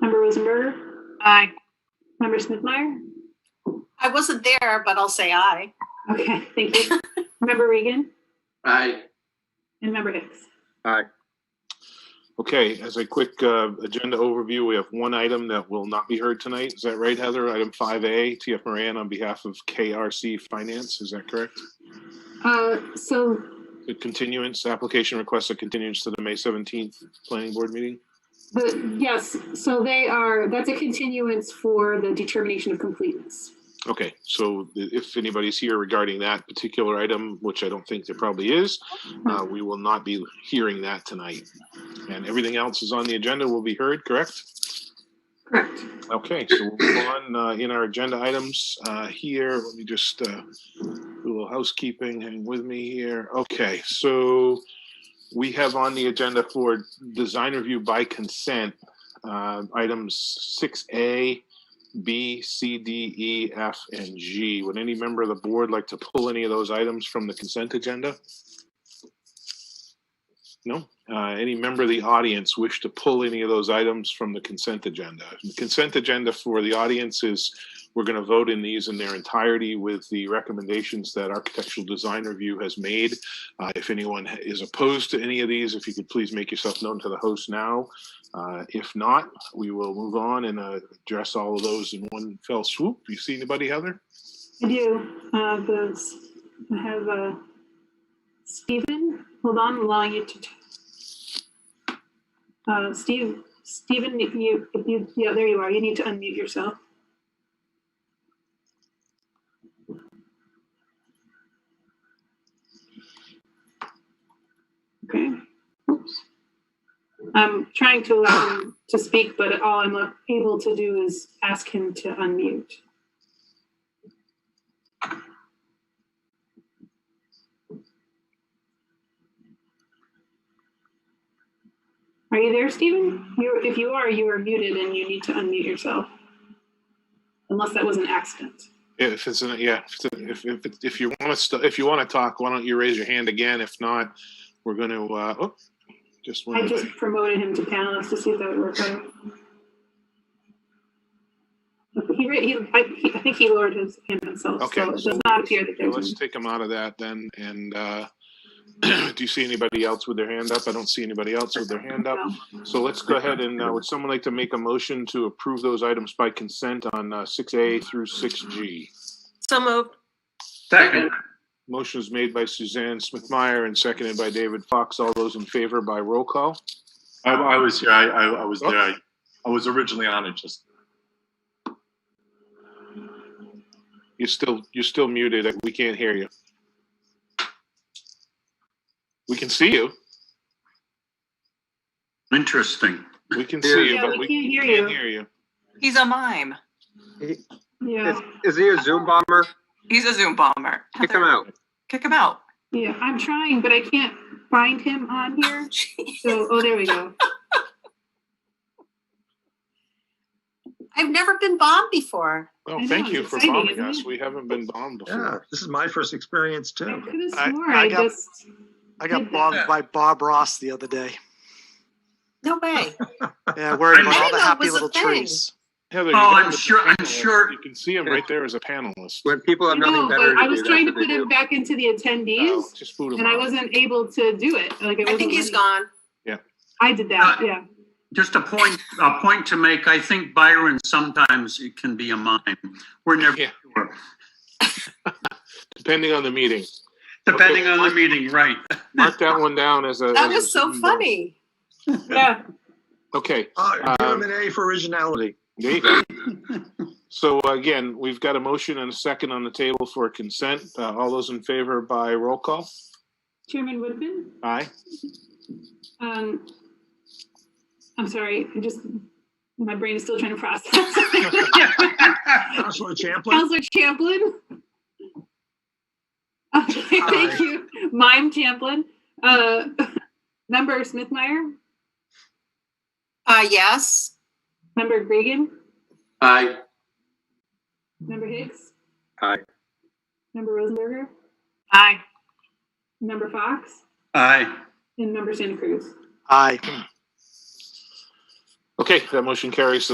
Member Rosenberger? Aye. Member Smithmeyer? I wasn't there, but I'll say aye. Okay, thank you. Member Regan Aye. and Member Hicks. Okay, as a quick uh, agenda overview, we have one item that will not be heard tonight. Is that right, Heather? Item 5A, TF Moran on behalf of KRC Finance, is that correct? Uh, so, The continuance, application requests a continuance to the May 17th Planning Board meeting? the, yes, so they are, that's a continuance for the determination of completeness. Okay, so th- if anybody's here regarding that particular item, which I don't think there probably is, uh, we will not be hearing that tonight. And everything else is on the agenda will be heard, correct? Correct. Okay, so we'll move on uh, in our agenda items uh, here. Let me just uh, do a little housekeeping. Hang with me here. Okay, so we have on the agenda for design review by consent uh, items six A, B, C, D, E, F, and G. Would any member of the board like to pull any of those items from the consent agenda? No. Uh, Any member of the audience wish to pull any of those items from the consent agenda? The Consent agenda for the audience is, we're going to vote in these in their entirety with the recommendations that Architectural Design Review has made. Uh, If anyone is opposed to any of these, if you could please make yourself known to the host now. Uh, If not, we will move on and uh, address all of those in one fell swoop. You see anybody, Heather? I do, uh, those, I have, uh, Stephen, hold on, I'm allowing you to. Uh, Steve, Stephen, if you, if you, yeah, there you are, you need to unmute yourself. Okay, oops. I'm trying to allow him to speak, but all I'm able to do is ask him to unmute. Are you there, Stephen? You, if you are, you are muted and you need to unmute yourself. Unless that was an accident. If it's, an- yeah, if it's- if, if, it's- if you want to, if you want to talk, why don't you raise your hand again? If not, we're going to, uh, oh, just I one. just promoted him to panelist to see if that would work out. He, ra- he, I, he, I think he lowered his hand himself, Okay, so it so does not appear that Okay, there's. Let's one. take them out of that then, and, uh, do you see anybody else with their hand up? I don't see anybody else with their hand up. So let's go ahead and, uh, would someone like to make a motion to approve those items by consent on, uh, six A through six G? So moved. Second. Motion is made by Suzanne Smithmeyer and seconded by David Fox. All those in favor by roll call? I, I was here. I, I, I was there. I, I was originally on it. Just You're still, you're still muted. We can't hear you. We can see you. interesting. We can see you, Yeah, we but we can't hear can't you. hear you. He's a mime. Yeah, Is he a Zoom bomber? He's a Zoom bomber. Kick him out. Kick him out. yeah, I'm trying, but I can't find him on here, so, oh, there we go. I've never been bombed before. Well, I thank know, you it's for exciting, bombing isn't us. it? We haven't been bombed before. Yeah, this is my first experience I too. could I- have sworn I I got- just, I Did got that. bombed by Bob Ross the other day. No way. Yeah, worried about I didn't know all the it happy was a little thing. trees. Heather, Oh, you're I'm the sure- I'm panelist. sure- You can see him right there as a panelist. When people I have know, but nothing better to do. I was trying to that's what put they him do. back into the attendees, Oh, Just boot him and I out. wasn't able to do it, like, I I wasn't. think he's letting- gone. I did that, yeah. Just a point, a point to make. I think Byron sometimes it can be a mime. We're never Yeah. sure, Depending on the meeting. depending on the meeting, right? Mark that one down as a. That as a was so Zoom bomb. funny. Yeah, Okay, Oh, give him Um, an A for originality. there you go. So again, we've got a motion and a second on the table for consent. Uh, all those in favor by roll call? Chairman Woodman? Aye. Um, I'm sorry, I just, my brain is still trying to process. Counselor Champlin? Counselor Champlin? Okay, thank you. Mime Champlin. Uh, Member Smithmeyer, Uh, yes. Member Regan, Aye. Member Hicks? Aye. Member Rosenberger, Aye. Member Fox, Aye. and Member Santa Cruz. Aye. Okay, that motion carries.